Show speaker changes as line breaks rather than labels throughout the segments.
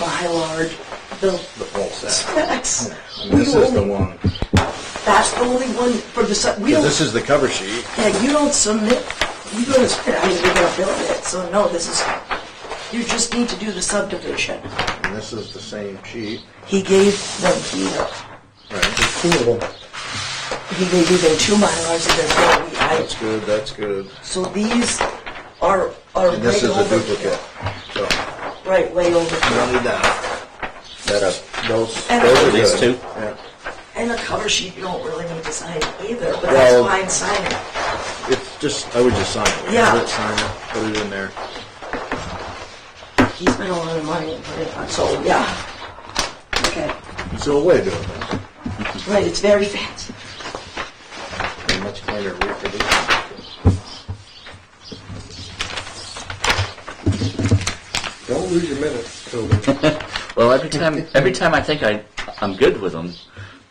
by large, the
the whole set.
specs.
And this
You
is the
only-
one,
That's the only one for the, sub- we don't,
this is the cover sheet.
yeah, you don't submit, you don't, submit, I mean, you're gonna build it, so no, this is, you just need to do the subdivision.
And this is the same sheet,
He gave them here,
right?
Two of them.
he gave you them two milars and there's no, we- I,
That's good, that's good.
so these are, are
And this
way
is a
over.
duplicate. So,
Right, way over.
we don't need that. That's, those, those
And-
are
These
good.
two?
Yeah.
And the cover sheet, you don't really need to sign either, but that's
Well-
fine signing.
It's just, I would just sign it.
Yeah.
Put it, Sign it, put it in there.
He spent a lot of money and put it on, so, yeah. Okay,
It's a way of doing things.
right, it's very fast.
a much cleaner reproduction.
Don't lose your minutes, Toby.
Well, every time, every time I think I, I'm good with them,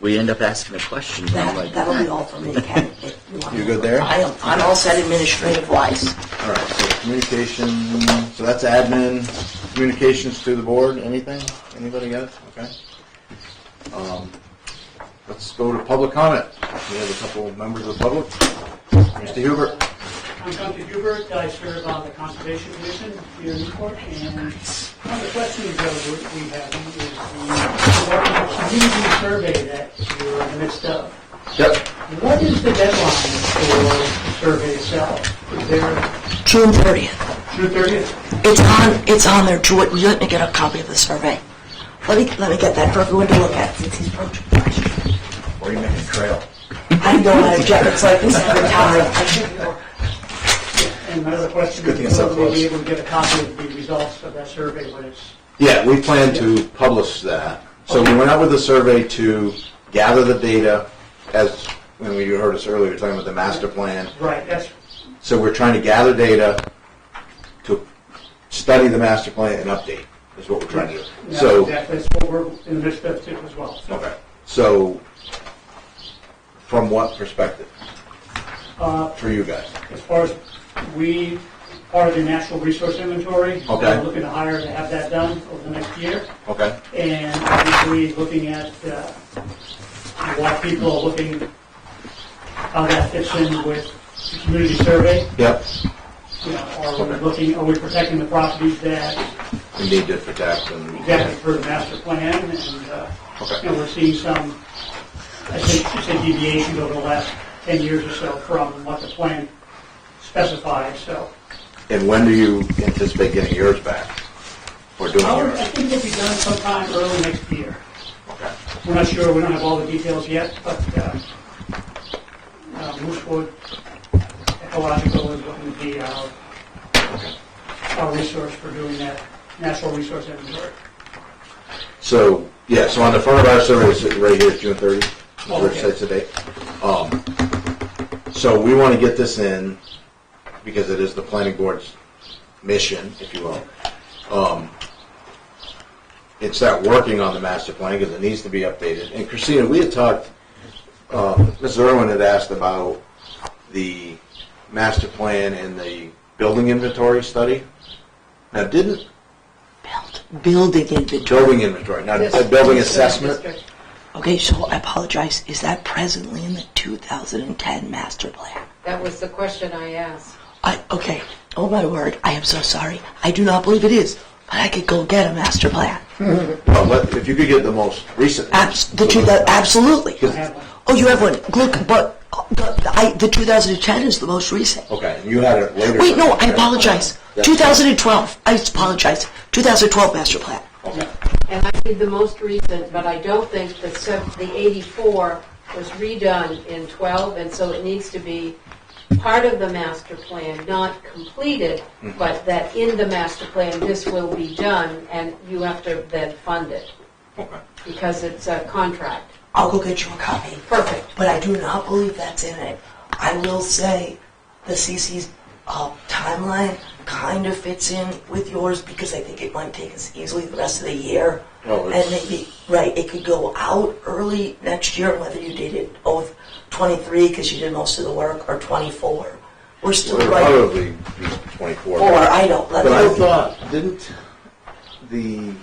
we end up asking a question. and I'm
That,
like,
that'll be all for me, Ken.
You good there?
I am, I'm all set administrative wise.
All right, so communication, so that's admin, communications to the board, anything? Anybody got it? Okay. Um, Let's go to public comment. We have a couple of members of the public. Mr. Huber,
I'm Duncan Hubert, I serve on the Conservation Commission here in Newport, and one of the questions that we we have is the community survey that you're in the midst of.
Yep.
What is the deadline for the survey itself? Is there
June thirtieth.
June 30th?
It's on, it's on there. Ju- Would you let me get a copy of the survey? Let me, let me get that for everyone to look at since he's approaching.
Where are you making a trail?
I know I object. It's like this every time. I should be more.
And my other question
Good thing it's
is,
up
will we
close.
be able to get a copy of the results of that survey when it's
Yeah, we plan to publish that. So we went out with a survey to gather the data as, and you heard us earlier talking about the master plan.
right? That's,
So we're trying to gather data to study the master plan and update, is what we're trying to do.
that's
So,
exactly- that's what we're in the midst of too as well. So
okay, so, from what perspective? For you guys?
As far as, we are the natural resource inventory.
Okay.
We're looking to hire to have that done over the next year.
Okay,
And obviously, looking at uh, what people are looking, how that fits in with the community survey.
yep,
You know, are we looking, are we protecting the properties that,
we need to protect and.
exactly for the master plan? And, uh,
Okay.
you know, we're seeing some, I think, you said deviations over the last 10 years or so from what the plan specifies, so.
And when do you anticipate getting yours back? Or doing
Well,
yours?
I think it'll be done sometime early next year.
Okay.
We're not sure, we don't have all the details yet, but uh, uh, Moosewood Ecological is looking to be our, our resource for doing that, natural resource inventory.
So, yeah, so on the front of our survey, it's right here, it's June 30,
Oh,
which
okay.
sets the date. Um, So we want to get this in, because it is the planning board's mission, if you will. Um, It's that working on the master plan, because it needs to be updated. And Christina, we had talked, uh, Ms. Irwin had asked about the master plan and the building inventory study. Now, didn't,
Build- Building inventory.
building inventory, now, the building assessment?
Okay, so I apologize. Is that presently in the 2010 master plan?
That was the question I asked.
I, okay. Oh my word. I am so sorry. I do not believe it is, but I could go get a master plan.
Well, let- if you could get the most recent.
Abs- the two, thou- absolutely.
I have one.
Oh, you have one. Look, but the, I, the 2010 is the most recent.
Okay, and you had it later.
Wait, no, I apologize.
That's-
2012. I apologize. 2012 master plan.
Okay.
And I did the most recent, but I don't think the sev- the 84 was redone in 12, and so it needs to be part of the master plan, not completed, but that in the master plan, this will be done, and you have to then fund it,
Okay.
because it's a contract.
I'll go get you a copy.
Perfect.
But I do not believe that's in it. I will say the CC's uh, timeline kind of fits in with yours because I think it might take us easily the rest of the year.
Oh,
and
it's-
maybe, right, it could go out early next year, whether you did it of 23 because you did most of the work or 24. We're still
It'll
right.
Probably be twenty-four.
Or I don't, let
But I
me.
thought, didn't the